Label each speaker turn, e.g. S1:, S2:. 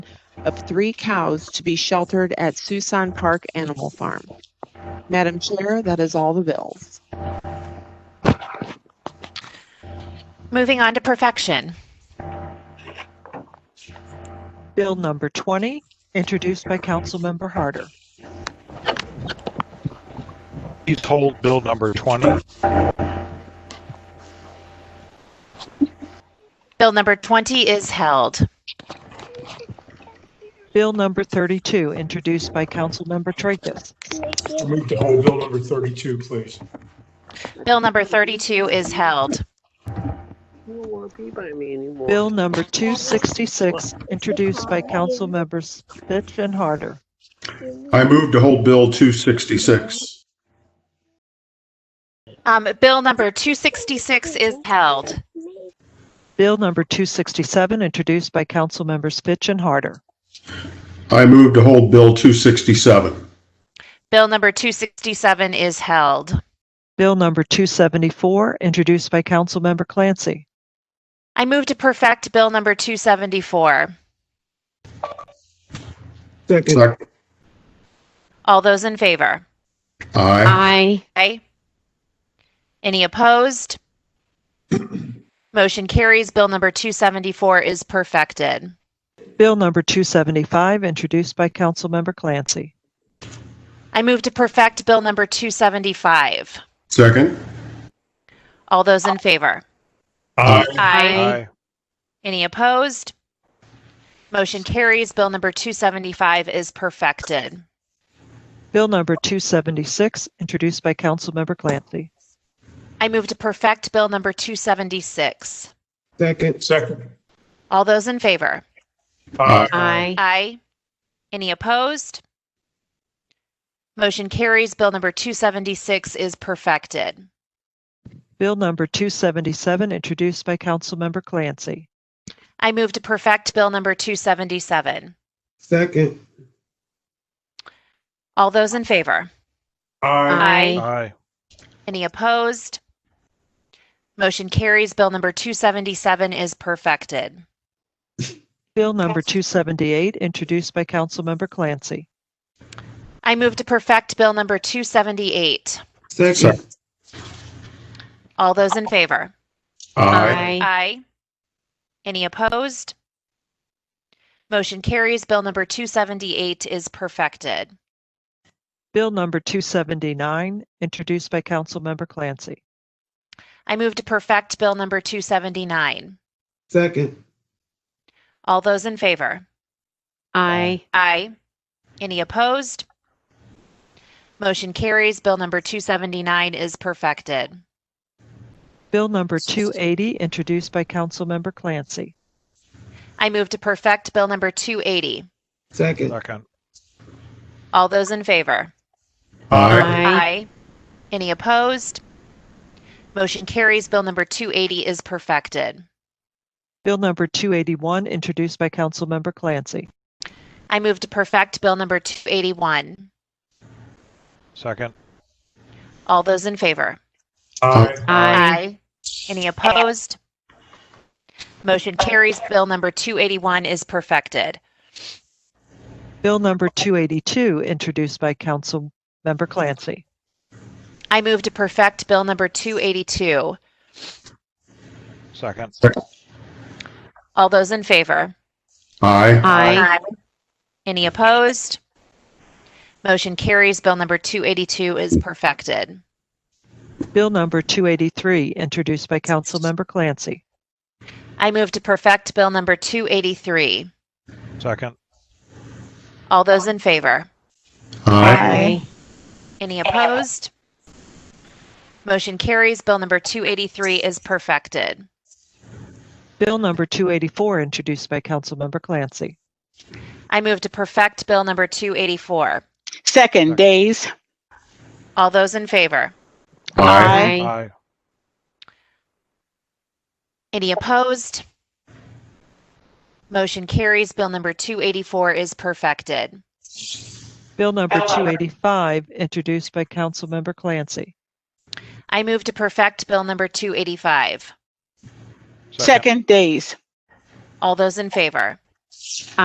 S1: of three cows to be sheltered at Suisun Park Animal Farm. Madam Chair, that is all the bills.
S2: Moving on to perfection.
S3: Bill number 20, introduced by Councilmember Harder.
S4: Please hold Bill number 20.
S2: Bill number 20 is held.
S3: Bill number 32, introduced by Councilmember Tracus.
S5: Move to hold bill number 32, please.
S2: Bill number 32 is held.
S6: You don't want to be by me anymore.
S3: Bill number 266, introduced by Councilmembers Fitch and Harder.
S5: I move to hold bill 266.
S2: Um, Bill number 266 is held.
S3: Bill number 267, introduced by Councilmembers Fitch and Harder.
S5: I move to hold bill 267.
S2: Bill number 267 is held.
S3: Bill number 274, introduced by Councilmember Clancy.
S2: I move to perfect Bill number 274.
S6: Second.
S5: Second.
S2: All those in favor?
S5: Aye.
S6: Aye.
S2: Aye. Any opposed? Motion carries. Bill number 274 is perfected.
S3: Bill number 275, introduced by Councilmember Clancy.
S2: I move to perfect Bill number 275.
S5: Second.
S2: All those in favor?
S5: Aye.
S2: Aye. Any opposed? Motion carries. Bill number 275 is perfected.
S3: Bill number 276, introduced by Councilmember Clancy.
S2: I move to perfect Bill number 276.
S6: Second.
S5: Second.
S2: All those in favor?
S5: Aye.
S6: Aye.
S2: Aye. Any opposed? Motion carries. Bill number 276 is perfected.
S3: Bill number 277, introduced by Councilmember Clancy.
S2: I move to perfect Bill number 277.
S6: Second.
S2: All those in favor?
S5: Aye.
S6: Aye.
S4: Aye.
S2: Any opposed? Motion carries. Bill number 277 is perfected.
S3: Bill number 278, introduced by Councilmember Clancy.
S2: I move to perfect Bill number 278.
S5: Second.
S2: All those in favor?
S5: Aye.
S2: Aye. Any opposed? Motion carries. Bill number 278 is perfected.
S3: Bill number 279, introduced by Councilmember Clancy.
S2: I move to perfect Bill number 279.
S6: Second.
S2: All those in favor?
S6: Aye.
S2: Aye. Any opposed? Motion carries. Bill number 279 is perfected.
S3: Bill number 280, introduced by Councilmember Clancy.
S2: I move to perfect Bill number 280.
S6: Second.
S4: Second.
S2: All those in favor?
S5: Aye.
S2: Any opposed? Motion carries. Bill number 280 is perfected.
S3: Bill number 281, introduced by Councilmember Clancy.
S2: I move to perfect Bill number 281.
S4: Second.
S2: All those in favor?
S5: Aye.
S2: Aye. Any opposed? Motion carries. Bill number 281 is perfected.
S3: Bill number 282, introduced by Councilmember Clancy.
S2: I move to perfect Bill number 282.
S4: Second.
S2: All those in favor?
S5: Aye.
S2: Aye. Any opposed? Motion carries. Bill number 282 is perfected.
S3: Bill number 283, introduced by Councilmember Clancy.
S2: I move to perfect Bill number 283.
S4: Second.
S2: All those in favor?
S5: Aye.
S2: Any opposed? Motion carries. Bill number 283 is perfected.
S3: Bill number 284, introduced by Councilmember Clancy.
S2: I move to perfect Bill number 284.
S4: Second.
S7: Second, Days.
S2: All those in favor?
S5: Aye.
S4: Aye.
S2: Any opposed? Motion carries. Bill number 284 is perfected.
S3: Bill number 285, introduced by Councilmember Clancy.
S2: I move to perfect Bill number 285.
S7: Second, Days.
S2: All those in favor?